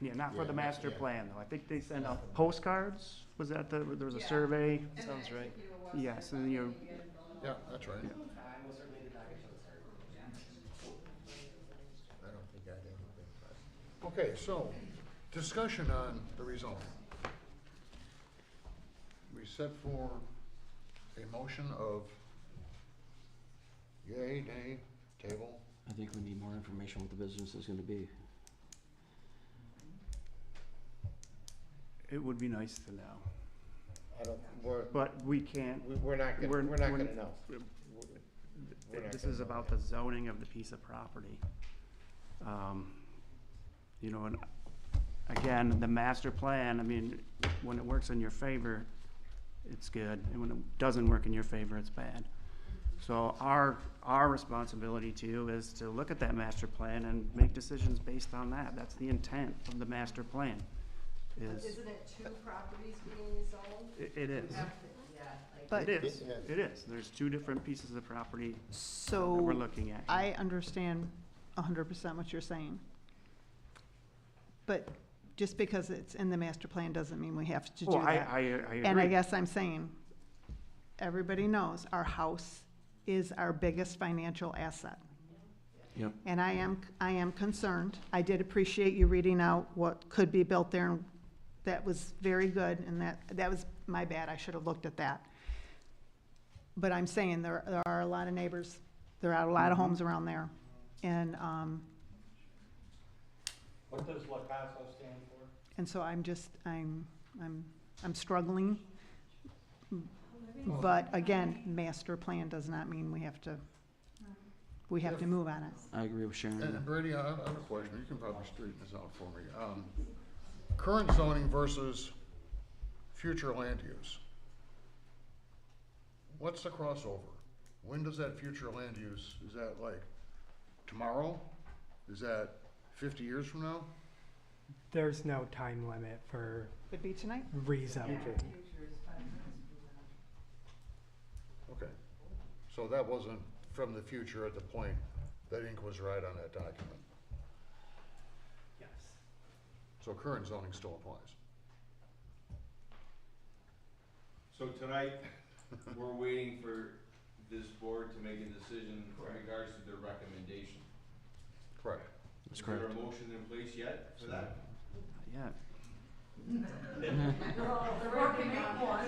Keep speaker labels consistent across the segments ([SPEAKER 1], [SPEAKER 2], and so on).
[SPEAKER 1] Yeah, not for
[SPEAKER 2] Yeah,
[SPEAKER 1] the
[SPEAKER 2] not-
[SPEAKER 1] master
[SPEAKER 2] yeah.
[SPEAKER 1] plan, though. I think they sent out postcards, was that the, there was a
[SPEAKER 3] Yeah.
[SPEAKER 1] survey?
[SPEAKER 3] Sounds right.
[SPEAKER 1] Yes, and then you,
[SPEAKER 2] Yeah, that's right.
[SPEAKER 1] Yeah.
[SPEAKER 2] I don't think I have anything. Okay, so, discussion on the result. We set for a motion of yay, nay, table.
[SPEAKER 4] I think we need more information what the business is gonna be.
[SPEAKER 1] it would be nice to know,
[SPEAKER 5] I don't, we're,
[SPEAKER 1] but we can't,
[SPEAKER 5] we- we're not gonna,
[SPEAKER 1] We're-
[SPEAKER 5] we're not
[SPEAKER 1] we're-
[SPEAKER 5] gonna know. We're not
[SPEAKER 1] this
[SPEAKER 5] gonna
[SPEAKER 1] is
[SPEAKER 5] know
[SPEAKER 1] about
[SPEAKER 5] yet.
[SPEAKER 1] the zoning of the piece of property. Um, You know, and again, the master plan, I mean, when it works in your favor, it's good, and when it doesn't work in your favor, it's bad. So our, our responsibility to you is to look at that master plan and make decisions based on that. That's the intent of the master plan, is,
[SPEAKER 3] Isn't it two properties being sold?
[SPEAKER 1] it it is.
[SPEAKER 6] But,
[SPEAKER 1] It is,
[SPEAKER 2] Yeah.
[SPEAKER 1] it is. There's two different pieces of property that we're
[SPEAKER 6] so,
[SPEAKER 1] looking at.
[SPEAKER 6] I understand hundred percent what you're saying. But just because it's in the master plan doesn't mean we have to do
[SPEAKER 1] Well, I,
[SPEAKER 6] that.
[SPEAKER 1] I, I agree.
[SPEAKER 6] And I guess I'm saying, everybody knows our house is our biggest financial asset.
[SPEAKER 4] Yep.
[SPEAKER 6] And I am, I am concerned. I did appreciate you reading out what could be built there, and that was very good, and that, that was my bad. I should have looked at that. But I'm saying there, there are a lot of neighbors, there are a lot of homes around there. And, um,
[SPEAKER 7] What does La Casa stand for?
[SPEAKER 6] and so I'm just, I'm, I'm, I'm struggling. But again, master plan does not mean we have to, we have to move on it.
[SPEAKER 4] I agree with
[SPEAKER 2] And
[SPEAKER 5] Mm-hmm.
[SPEAKER 4] Sharon.
[SPEAKER 2] Brady, I I have a question, you can probably straighten this out for me. Um, Current zoning versus future land use. What's the crossover? When does that future land use, is that like tomorrow? Is that fifty years from now?
[SPEAKER 8] There's no time limit for
[SPEAKER 6] Would be tonight?
[SPEAKER 8] rezoning.
[SPEAKER 2] Okay, so that wasn't from the future at the point that ink was right on that document.
[SPEAKER 8] Yes.
[SPEAKER 2] So current zoning still applies.
[SPEAKER 9] So tonight, we're waiting for this board to make a decision in regards to their recommendation.
[SPEAKER 2] Correct.
[SPEAKER 4] That's
[SPEAKER 9] Is there a
[SPEAKER 4] correct.
[SPEAKER 9] motion in place yet for that?
[SPEAKER 1] Yeah.
[SPEAKER 3] Oh, They're working on one.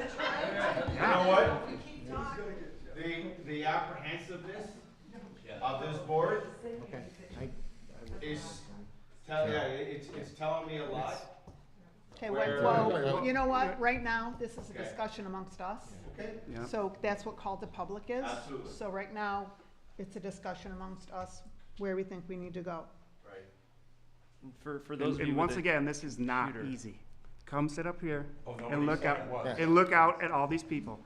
[SPEAKER 9] You know what? The, the apprehensiveness of this board
[SPEAKER 5] Okay, I, I would-
[SPEAKER 9] is, tell, yeah, it's, it's telling me a lot.
[SPEAKER 6] Okay,
[SPEAKER 9] Where-
[SPEAKER 6] well, you know what, right now, this is a
[SPEAKER 9] Okay.
[SPEAKER 6] discussion amongst us,
[SPEAKER 9] Okay.
[SPEAKER 1] Yeah.
[SPEAKER 6] so that's what called the public is.
[SPEAKER 9] Absolutely.
[SPEAKER 6] So right now, it's a discussion amongst us where we think we need to go.
[SPEAKER 9] Right.
[SPEAKER 10] For, for
[SPEAKER 1] And-
[SPEAKER 10] those of
[SPEAKER 1] And
[SPEAKER 10] you
[SPEAKER 1] once
[SPEAKER 10] with a
[SPEAKER 1] again, this is not
[SPEAKER 10] computer.
[SPEAKER 1] easy. Come sit up here
[SPEAKER 9] Oh,
[SPEAKER 1] and
[SPEAKER 9] nobody
[SPEAKER 1] look
[SPEAKER 9] said
[SPEAKER 1] out,
[SPEAKER 9] it was.
[SPEAKER 1] and look out at all these people.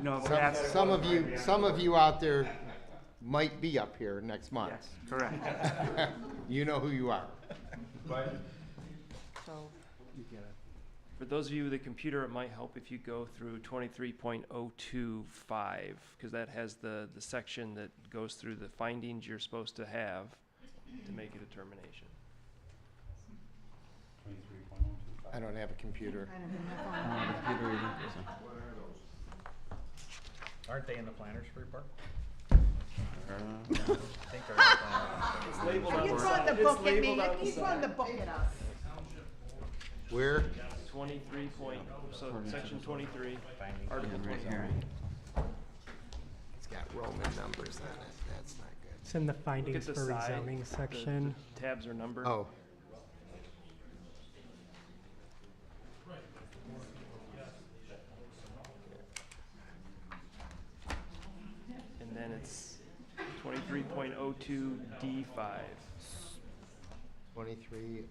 [SPEAKER 1] No,
[SPEAKER 5] some,
[SPEAKER 1] that's,
[SPEAKER 5] some of you, some of you out there might be up here next month.
[SPEAKER 1] yes, correct.
[SPEAKER 5] You know who you are.
[SPEAKER 9] But
[SPEAKER 6] So,
[SPEAKER 10] for those of you with a computer, it might help if you go through twenty-three point oh two five because that has the the section that goes through the findings you're supposed to have to make a determination.
[SPEAKER 7] Twenty-three point one two five.
[SPEAKER 5] I don't have a computer.
[SPEAKER 6] I don't know.
[SPEAKER 4] I don't have a computer either, so.
[SPEAKER 11] Aren't they in the planners report? I think they're
[SPEAKER 10] It's labeled
[SPEAKER 6] Are you throwing the book at me? Are you throwing the book at us?
[SPEAKER 5] Where?
[SPEAKER 10] Twenty-three point, so section twenty-three,
[SPEAKER 11] finding.
[SPEAKER 10] article
[SPEAKER 4] Yeah, right
[SPEAKER 10] twenty-three.
[SPEAKER 4] here.
[SPEAKER 5] It's got Roman numbers on it, that's not good.
[SPEAKER 8] It's in the
[SPEAKER 10] Look at
[SPEAKER 8] findings
[SPEAKER 10] the
[SPEAKER 8] for
[SPEAKER 10] side.
[SPEAKER 8] rezoning
[SPEAKER 10] the-
[SPEAKER 8] section.
[SPEAKER 10] the Tabs are numbered.
[SPEAKER 5] Oh,
[SPEAKER 10] And then it's twenty-three point oh two D five.
[SPEAKER 5] twenty-three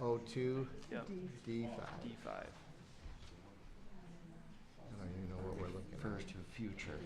[SPEAKER 5] oh two
[SPEAKER 10] Yep,
[SPEAKER 5] D five.
[SPEAKER 10] D five.
[SPEAKER 5] I don't even know what we're looking at.
[SPEAKER 4] First to future.